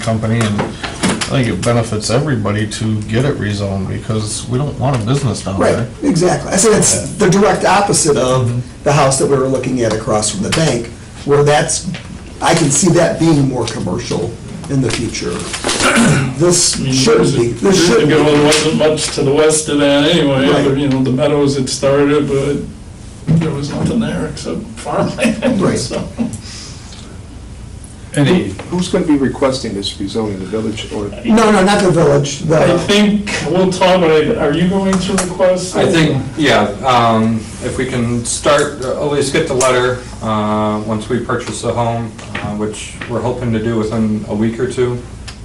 company, and I think it benefits everybody to get it rezoned, because we don't want a business down Right, there. exactly. I said it's the direct opposite Um, of the house that we were looking at across from the bank, where that's, I can see that being more commercial in the future. This I mean, shouldn't be, this there's a- shouldn't there be. wasn't much to the west of that anyway, Right. There, you know, the meadows had started, but there was nothing there except farmland, Right. so. Any, who's going to be requesting this rezoning, the village or? No, no, not the village, I the, think, we'll talk about it, are you going to request? I think, yeah, um, if we can start, at least get the letter, uh, once we purchase the home, uh, which we're hoping to do within a week or two.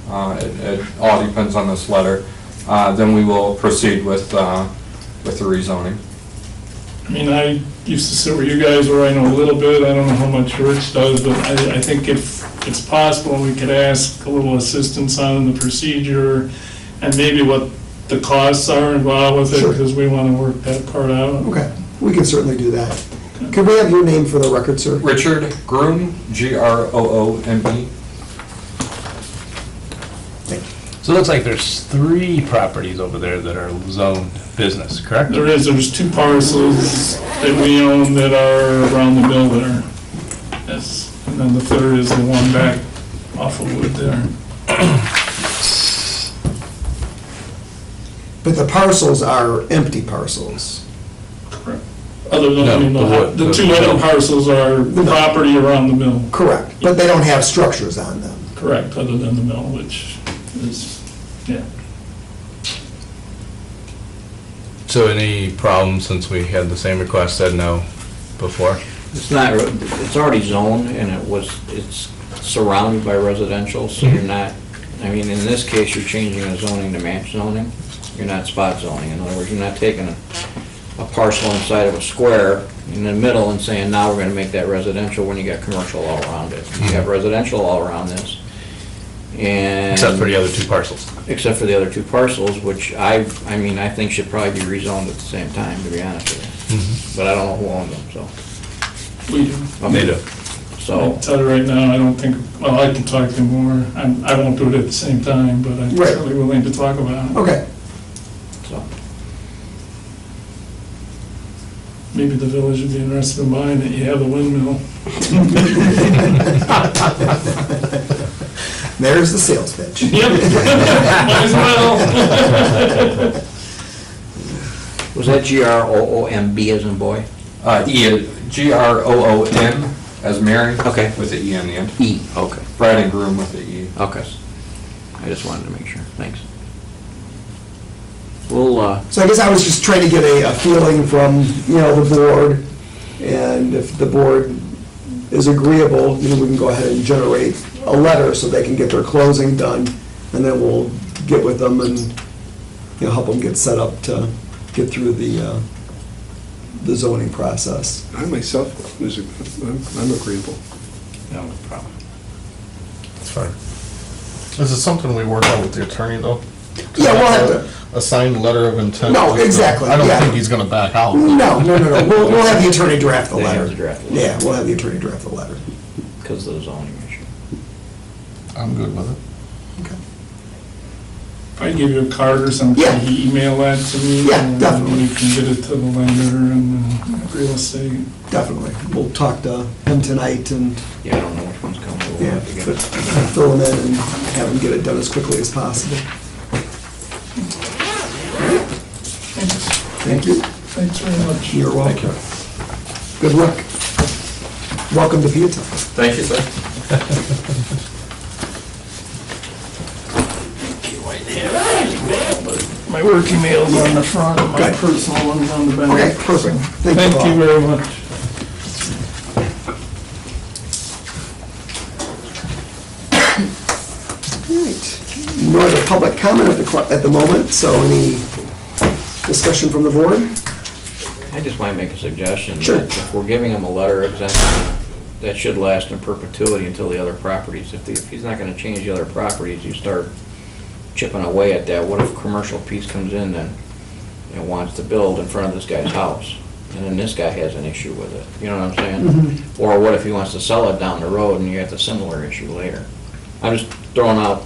Uh, it, it all depends on this letter. Uh, then we will proceed with, uh, with the rezoning. I mean, I used to sit where you guys were, I know a little bit, I don't know how much Rich does, but I, I think if it's possible, we could ask a little assistance on the procedure and maybe what the costs are involved with it, Sure. because we want to work that part out. okay, we can certainly do that. Could we have your name for the record, sir? Richard Groom, G-R-O-O-M-E. So it looks like there's three properties over there that are zoned business, correct? There is, there's two parcels that we own that are around the mill there. Yes, and then the third is the one back off of Wood there. But the parcels are empty parcels. Other than, I mean, No, the the wood, the the- two other parcels are property around the mill, Correct, but they don't have structures on them. correct, other than the mill, which is, yeah. So any problem since we had the same request said no before? It's not, it's already zoned and it was, it's surrounded by residential, so Mm-hmm. you're not, I mean, in this case, you're changing a zoning to match zoning. You're not spot zoning. In other words, you're not taking a a parcel inside of a square in the middle and saying, now we're gonna make that residential when you got commercial all around it. You Mm-hmm. have residential all around this. And. Except for the other two parcels. Except for the other two parcels, which I, I mean, I think should probably be rezoned at the same time, to be honest Mm-hmm. with you. But I don't know who owned them, so. We, They do. I'll So, tell you right now, I don't think, well, I can talk to you more. I'm- I won't do it at the same time, but I'm Right. certainly willing to talk about it. Okay, so, Maybe the village would be interested in buying it. You have the windmill. there's the sales pitch. Yep, might as well. was that G-R-O-O-M-B as in boy? Uh, E, G-R-O-O-M as Mary. Okay. With the E on the end. E. Okay. Brad and Groom with the E. Okay. I just wanted to make sure, thanks. We'll, uh, So I guess I was just trying to get a, a feeling from, you know, the board, and if the board is agreeable, you know, we can go ahead and generate a letter so they can get their closing done, and then we'll get with them and, you know, help them get set up to get through the, uh, the zoning process. I myself, is- I'm I'm agreeable. No problem. It's fine. Is it something we work out with the attorney, though? Yeah, we'll have to, A signed letter of intent? No, exactly, I don't yeah. think he's gonna back out. no, no, no, no, we'll, we'll have the attorney draft the They have letter. to draft the letter. Yeah, we'll have the attorney draft the letter. because of the zoning issue. I'm good with it. If I give you a card or something, Yeah. can you email that to me? Yeah, definitely. And you can get it to the lender and uh, real estate. Definitely. We'll talk to him tonight and Yeah, I don't know which one's coming, but we'll Yeah, have to get but it. fill them in and have them get it done as quickly as possible. Thank you. Thanks very much. You're welcome. Good luck. Welcome to Peatone. Thank you, sir. My work email's on the front, my Okay. personal one's on the back. Okay, perfect. Thank Thank you you all. very much. Alright. No other public comment at the, cl- at the moment, so any discussion from the board? I just might make a suggestion. Sure. that If we're giving him a letter of exemption, that should last in perpetuity until the other properties. If, the- if he's not gonna change the other properties, you start chipping away at that. What if a commercial piece comes in and, and wants to build in front of this guy's house? And then this guy has an issue with it, you know what I'm saying? Or what if he wants to sell it down the road and you have the similar issue later? I I'm just throwing out